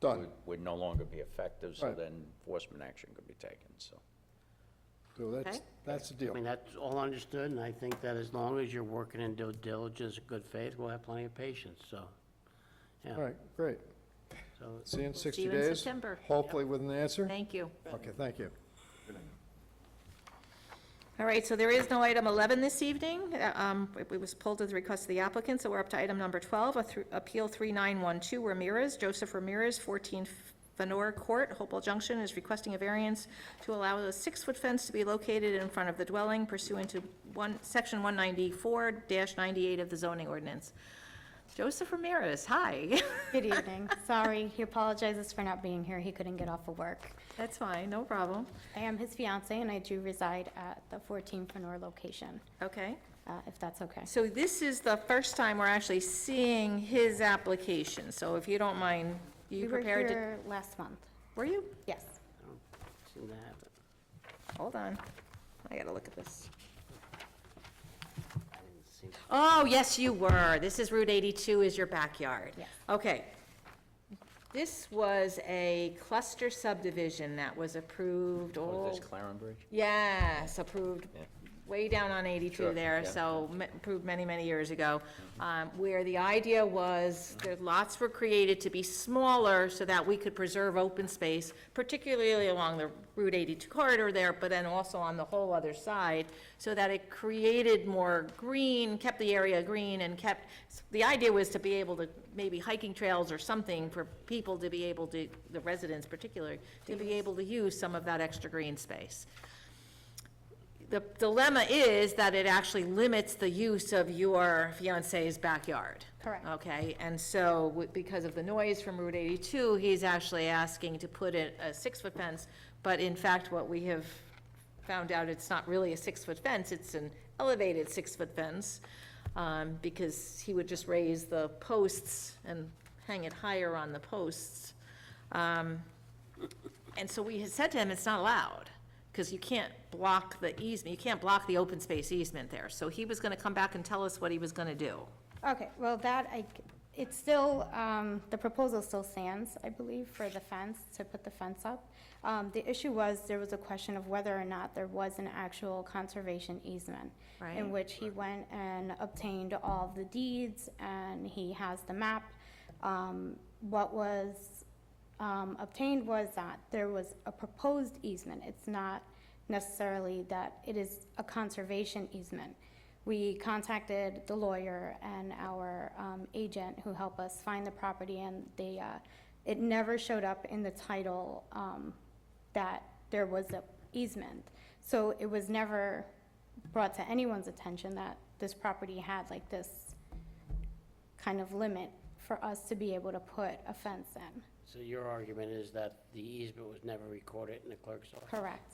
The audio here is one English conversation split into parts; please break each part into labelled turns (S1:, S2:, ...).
S1: Done.
S2: would- Would no longer be effective, so
S1: Right.
S2: then enforcement action could be taken, so.
S1: So that's,
S3: Okay.
S1: that's the
S4: I
S1: deal.
S4: mean, that's all understood, and I think that as long as you're working in due diligence and good faith, we'll have plenty of patience, so, yeah.
S1: All right, great.
S4: So,
S1: See you in
S3: See
S1: 60
S3: you
S1: days.
S3: in September.
S1: Hopefully with an answer.
S3: Thank you.
S1: Okay, thank you.
S3: All right, so there is no item 11 this evening. Uh, um, It it was pulled at the request of the applicant, so we're up to item number 12, a thr- Appeal 3912 Ramirez, Joseph Ramirez, 14 Fenor Court, Hopewell Junction, is requesting a variance to allow a six-foot fence to be located in front of the dwelling pursuant to one, Section 194-98 of the zoning ordinance. Joseph Ramirez, hi.
S5: Good evening. Sorry, he apologizes for not being here. He couldn't get off of work.
S3: That's fine, no problem.
S5: I am his fiance and I do reside at the 14 Fenor location,
S3: Okay.
S5: uh, if that's okay.
S3: So this is the first time we're actually seeing his application, so if you don't mind, you prepared
S5: We were
S3: to?
S5: here last month.
S3: Were you?
S5: Yes.
S4: I don't seem to have it.
S3: Hold on, I gotta look at this.
S4: I didn't see it.
S3: Oh, yes, you were, this is Route 82 is your backyard.
S5: Yes.
S3: Okay. This was a cluster subdivision that was approved,
S2: Was
S3: oh,
S2: this Clarenbridge?
S3: yes, approved
S2: Yeah.
S3: way down on 82
S2: Sure,
S3: there,
S2: yeah.
S3: so m- approved many, many years ago, um, where the idea was that lots were created to be smaller so that we could preserve open space, particularly along the Route 82 corridor there, but then also on the whole other side, so that it created more green, kept the area green and kept, the idea was to be able to, maybe hiking trails or something for people to be able to, the residents particularly, to be able to use some of that extra green space. The dilemma is that it actually limits the use of your fiance's backyard.
S5: Correct.
S3: Okay, and so w- because of the noise from Route 82, he's actually asking to put in a six-foot fence, but in fact, what we have found out, it's not really a six-foot fence, it's an elevated six-foot fence, um, because he would just raise the posts and hang it higher on the posts. Um, and so we had said to him, it's not allowed, because you can't block the easement, you can't block the open space easement there. So he was gonna come back and tell us what he was gonna do.
S5: Okay, well, that, I, c- it's still, um, the proposal still stands, I believe, for the fence, to put the fence up. Um, the issue was, there was a question of whether or not there was an actual conservation easement.
S3: Right.
S5: In which he went and obtained all the deeds, and he has the map. Um, what was, um, obtained was that there was a proposed easement. It's not necessarily that it is a conservation easement. We contacted the lawyer and our um, agent who helped us find the property, and they, uh, it never showed up in the title um, that there was a easement. So it was never brought to anyone's attention that this property had like this kind of limit for us to be able to put a fence in.
S4: So your argument is that the easement was never recorded in the clerk's office?
S5: Correct.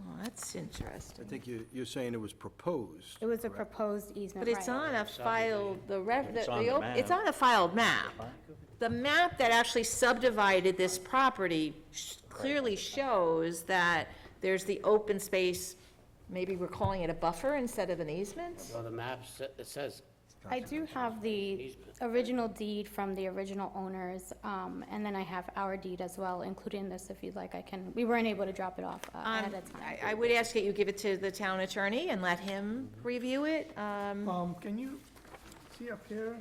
S3: Well, that's
S6: I
S3: interesting.
S6: think you, you're saying it was proposed.
S5: It was a proposed easement,
S3: But
S5: right?
S3: it's on a filed, the rev, the,
S2: It's on the
S3: the op- it's
S2: map.
S3: on a filed map. The map that actually subdivided this property sh- clearly shows that there's the open space, maybe we're calling it a buffer instead of an easement?
S4: So the map, sa- it says
S5: I do have the original deed from the original owners, um, and then I have our deed as well, including this, if you'd like, I can, we weren't able to drop it off uh,
S3: Um,
S5: ahead of time.
S3: I, I would ask that you give it to the town attorney and let him review it, um.
S7: Um, can you see up here?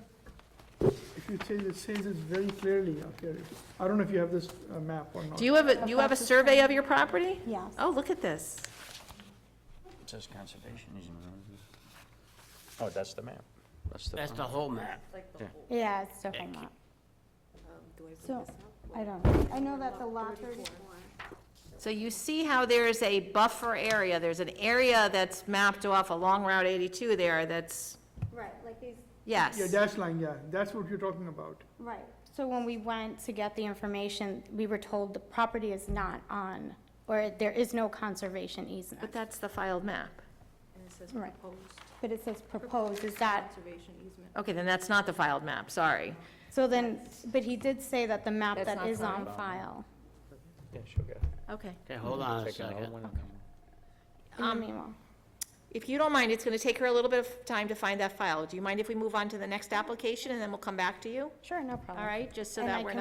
S7: If you say, it says it very clearly up here. I don't know if you have this uh, map or not.
S3: Do you have a, do you have a survey of your property?
S5: Yes.
S3: Oh, look at this.
S2: It says conservation easement. Oh, that's the map. That's the,
S4: That's the whole map.
S5: Yeah, it's definitely not. So, Um, I don't, know. I know that the lot thirty-four.
S3: So you see how there's a buffer area, there's an area that's mapped off along Route 82 there that's,
S5: Right, like these.
S3: yes.
S7: Yeah, dash line, yeah, that's what you're talking about.
S5: Right. So when we went to get the information, we were told the property is not on, or there is no conservation
S3: But
S5: easement.
S3: that's the filed map.
S5: Right. But it says proposed, is Mm. that,
S3: Okay, then that's not the filed map, sorry.
S5: so then, but he did say that the map
S3: That's
S5: that
S3: not
S5: is on
S3: filed.
S5: file.
S2: yeah, she'll get it.
S3: Okay.
S4: Okay, hold on a
S2: Take another
S4: second.
S2: one and then-
S5: In the meanwhile,
S3: If you don't mind, it's going to take her a little bit of time to find that file. Do you mind if we move on to the next application and then we'll come back to you?
S5: sure, no problem.
S3: All right, just so
S5: And I
S3: that we're
S5: can
S3: not.